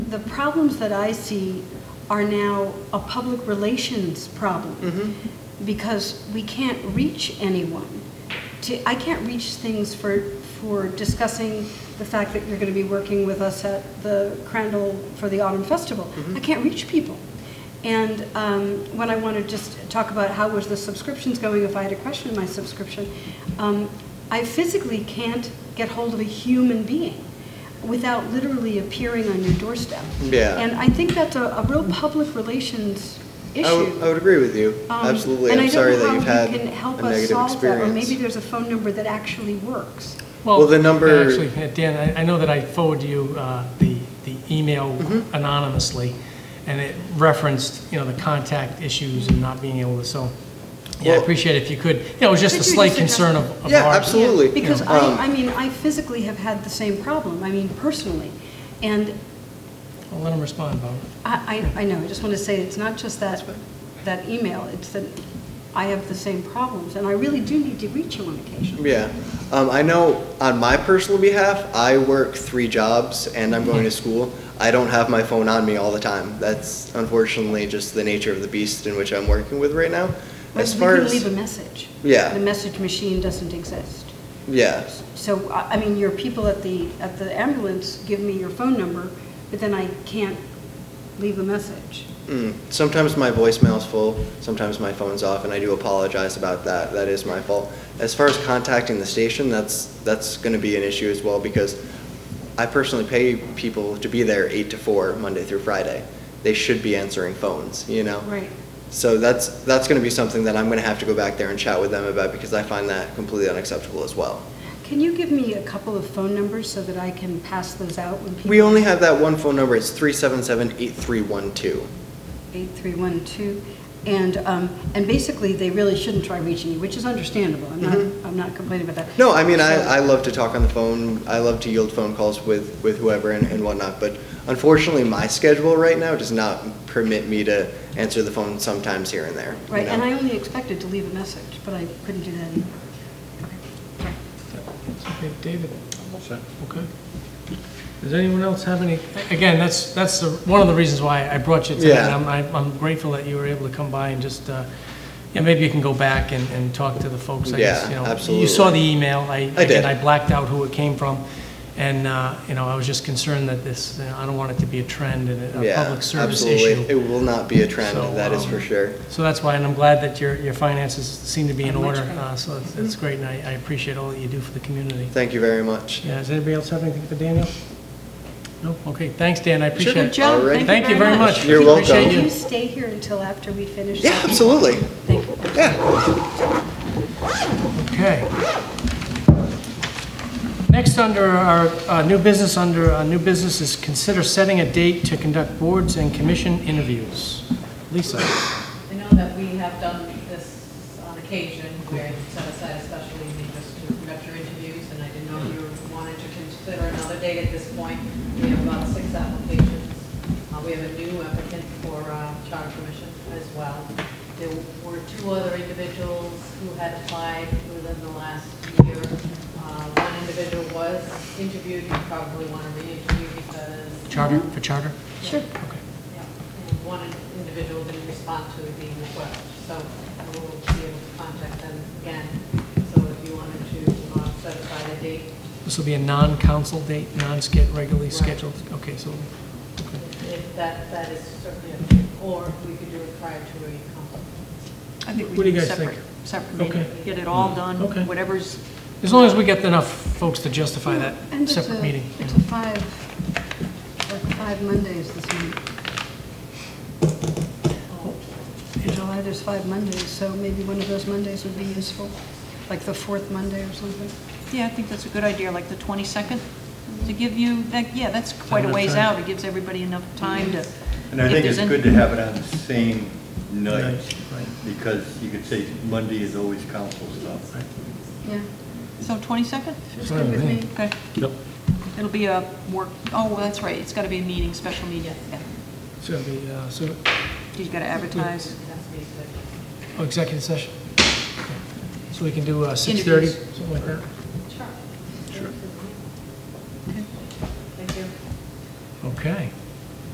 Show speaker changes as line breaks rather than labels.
the problems that I see are now a public relations problem. Because we can't reach anyone. To, I can't reach things for, for discussing the fact that you're going to be working with us at the Crandall for the Autumn Festival. I can't reach people. And um, when I want to just talk about how was the subscriptions going, if I had a question in my subscription, um, I physically can't get hold of a human being without literally appearing on your doorstep.
Yeah.
And I think that's a, a real public relations issue.
I would, I would agree with you.
Um,
Oh, Absolutely.
and I
I'm
don't
sorry
know
that
how
you've
you
had
can help
a
us
negative
solve that, Or
experience.
maybe there's a phone number that actually works.
Well, the number-
Actually, uh, Dan, I I know that I forwarded you uh, the the email
Mm-hmm.
anonymously, and it referenced, you know, the contact issues and not being able to, so, yeah, I
Well-
appreciate it if you could, you know, it was just a
Could you
slight
just address-
concern of of ours.
Yeah, absolutely.
Because
Um,
I, I mean, I physically have had the same problem, I mean, personally. And
I'll let him respond, Bob.
I, I I know, I just want to say, it's not just that, that email, it's that I have the same problems, and I really do need to reach you on occasion.
Yeah. Um, I know on my personal behalf, I work three jobs and I'm going to school. I don't have my phone on me all the time. That's unfortunately just the nature of the beast in which I'm working with right now.
But
as
we
far
can
as
leave a message.
Yeah.
The message machine doesn't exist.
yeah,
So, I I mean, your people at the, at the ambulance give me your phone number, but then I can't leave a message.
mm, sometimes my voicemail's full, sometimes my phone's off, and I do apologize about that. That is my fault. As far as contacting the station, that's that's going to be an issue as well because I personally pay people to be there eight to four Monday through Friday. They should be answering phones, you know.
Right.
So that's, that's going to be something that I'm going to have to go back there and chat with them about because I find that completely unacceptable as well.
Can you give me a couple of phone numbers so that I can pass those out when people?
We only have that one phone number, it's 377-8312.
8312, and, um, and basically, they really shouldn't try reaching you, which is understandable. I'm not, I'm not complaining about that.
Mm-hmm. No, I mean, I,
So-
I love to talk on the phone, I love to yield phone calls with, with whoever and and whatnot, but unfortunately, my schedule right now does not permit me to answer the phone sometimes here and there. you
Right, and
know?
I only expected to leave a message, but I couldn't do that either. Okay, sorry.
It's Okay, David? Okay. Does anyone else have any, again, that's, that's the- one of the reasons why I brought you today.
Yeah.
and I'm- I'm I'm grateful that you were able to come by and just, uh, yeah, maybe you can go back and, and talk to the folks, I guess,
Yeah,
you know.
absolutely.
You saw the email, I.
I did.
again, I blacked out who it came from, and, uh, you know, I was just concerned that this, you know, I don't want it to be a trend and a
Yeah,
public service
absolutely.
issue.
It will not be a trend,
So,
that is
um,
for sure.
So that's why, and I'm glad that your, your finances seem to be in order, uh, so it's, it's great, and I, I appreciate all that you do for the community.
Thank you very much.
Yeah, does anybody else have anything for Daniel? No? Okay, thanks, Dan, I appreciate
Good
it.
job,
Alright.
thank you very much.
You're welcome.
Can you stay here until after we finish?
Yeah, absolutely.
Thank you.
Okay. Next, under our uh, new business, under uh, new business is consider setting a date to conduct boards and commission interviews. Lisa?
I know that we have done this on occasion, where you set aside a special evening just to conduct your interviews, and I didn't know if you wanted to consider another date at this point. We have about six applications. Uh, We have a new applicant for uh, charter commission as well. There were two other individuals who had applied within the last year. Uh, One individual was interviewed, you probably want to re-interview because
Charter, for charter?
Sure.
Okay.
yeah, and one individual didn't respond to the request, so we'll be able to contact them again. So if you wanted to uh, set aside a date,
This will be a non-council date, non-sched, regularly
Right.
scheduled? Okay, so, okay.
if that, that is certainly, or we could do it prior to a conference.
I think we
What do
do
you
a
guys think?
separate, separate meeting,
Okay. Mm.
get it all done,
Um,
Okay.
whatever's,
As long as we get enough folks to justify
And
that
it's
separate
a-
meeting. you
It's
know.
a five, like five Mondays this month. In July, there's five Mondays, so maybe one of those Mondays would be useful, like the fourth Monday or something.
yeah, I think that's a good idea, like the 22nd, to give you, that, yeah, that's quite a
enough
ways
time?
out, it gives everybody enough time to.
And I
if
think
there's
it's
any-
good to have it on the same night,
Night, right.
because you could say Monday is always council stuff.
Yeah,
So 22nd?
it's good with me.
Okay.
Yep.
It'll be a work, oh, well, that's right, it's got to be a meeting, special meeting, yeah.
So it'll be, uh, so,
You've got to advertise.
It has to be, but
oh, executive session? So we can do uh, 6:30,
Interviews.
something like that?